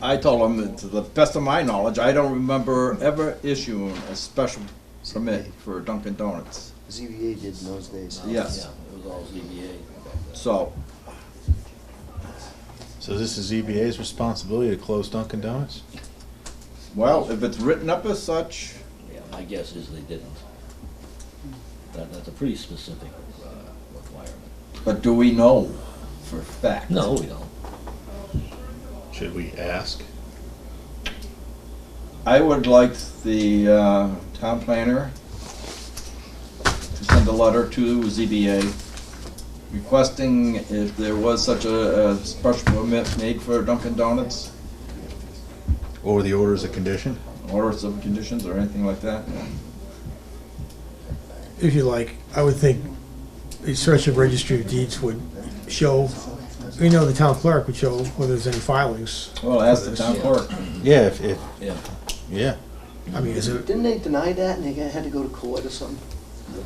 I told him that to the best of my knowledge, I don't remember ever issuing a special permit for Dunkin' Donuts. ZBA did in those days. Yes, It was all ZBA. so, So this is EBA's responsibility to close Dunkin' Donuts? well, if it's written up as such, Yeah, my guess is they didn't. That, that's a pretty specific uh, requirement. but do we know for a fact? No, we don't. Should we ask? I would like the uh, town planner to send a letter to ZBA requesting if there was such a a special permit made for Dunkin' Donuts, Or the orders of condition? orders of conditions or anything like that. if you like, I would think a search of registry of deeds would show, you know, the town clerk would show whether there's any filings. Well, ask the town clerk. Yeah, if, if, Yeah. yeah. I mean, is it, Didn't they deny that and they got- had to go to court or something?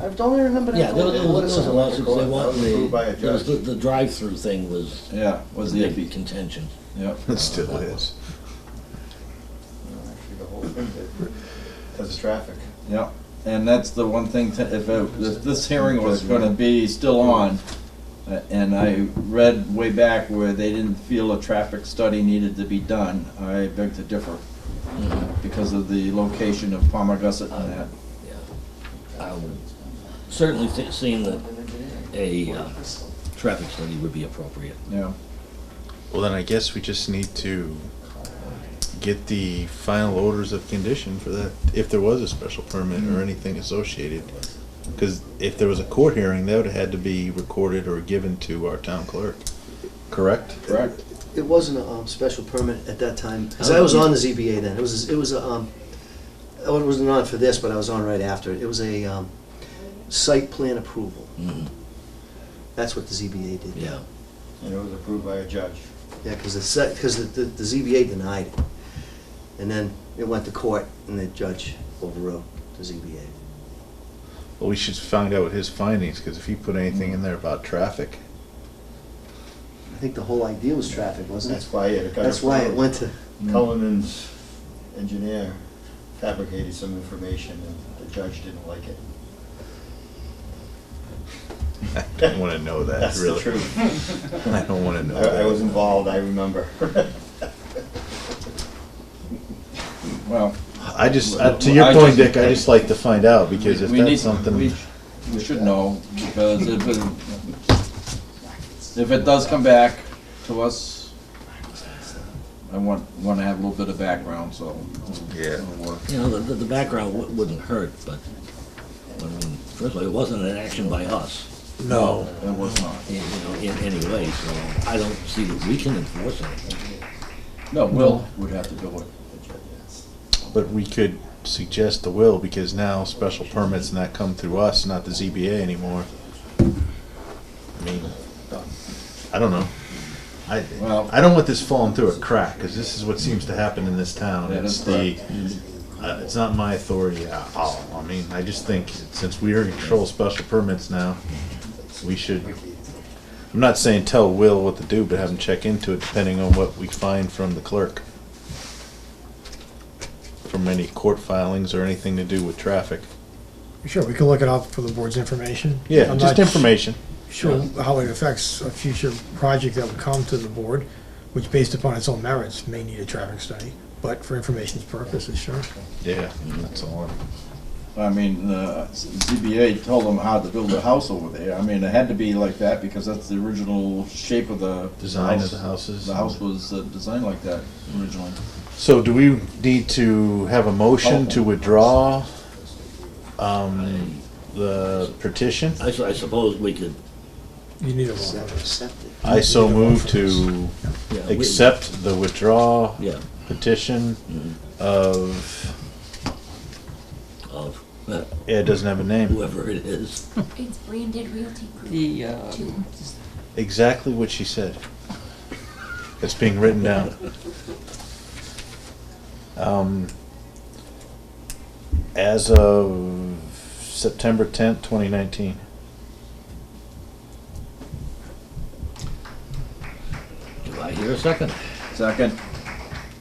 I don't remember that. Yeah, there going was, there to court or was a something. lawsuit, they wanted approved by a the, there was the, judge. the drive-through thing was Yeah, was the the big iffy, contention. yeah. It still is. Because of traffic. Yeah, and that's the one thing, to- if, it- if this hearing was gonna be still on, uh, and I read way back where they didn't feel a traffic study needed to be done, I beg to differ because of the location of Palmer Gussit and that. I would certainly thi- seem that a uh, traffic study would be appropriate. Yeah, Well, then I guess we just need to get the final orders of condition for that, if there was a special permit or anything associated. Because if there was a court hearing, that would have had to be recorded or given to our town clerk, correct? correct. It wasn't a, um, special permit at that time, cause I was on the ZBA then, it was, it was, a, um, I wasn't on for this, but I was on right after, it was a, um, site plan approval, Mhm, that's what the ZBA did. Yeah. And it was approved by a judge. Yeah, cause the site, cause the, the, the ZBA denied it, and then it went to court, and the judge overruled the ZBA. Well, we should find out his findings, because if he put anything in there about traffic, I think the whole idea was traffic, wasn't That's it? why it got. That's why it approved. went to, Cullinan's engineer fabricated some information and the judge didn't like it. I don't want to know that, That's the really. truth. I don't want to know that. I, I was involved, I remember. Well, I just, uh, to I your point, just- Dick, I just like to find out, because if we need, that's something. we, we should know, because if it, if it does come back to us, I want, wanna have a little bit of background, so. Yeah. it'll work. You know, the, the the background wou- wouldn't hurt, but, I mean, first of all, it wasn't an action by us, no. It was not. in- you know, in any way, so I don't see that we can enforce anything. No, Will would have to do it. But we could suggest the will, because now special permits and that come through us, not the ZBA anymore. I mean, I don't know. I, Well- I don't want this falling through a crack, because this is what seems to happen in this town. That is It's the, uh, it's not my authority at all. I mean, I just think, since we are in control of special permits now, we should, I'm not saying tell Will what to do, but have him check into it depending on what we find from the clerk from any court filings or anything to do with traffic. Sure, we can look it up for the board's information. Yeah, I'm just not information. Sure how it affects a future project that would come to the board, which based upon its own merits may need a traffic study, but for information's purposes, sure. Yeah, that's all. I mean, uh, the ZBA told them how to build a house over there. I mean, it had to be like that because that's the original shape of the. Design of the house. houses. The house was uh, designed like that originally. So do we need to have a motion to withdraw um, the petition? I su- I suppose we could, You need a se- vote. accepted. I so move to yeah. we- accept the withdraw Yeah, petition Mhm. of, of uh, yeah, it doesn't have a name. whoever it is. It's branded Realty Group. The, uh, Two. Exactly what she said. It's being written down. Um, as of September tenth, twenty nineteen. Do I hear a second? Second,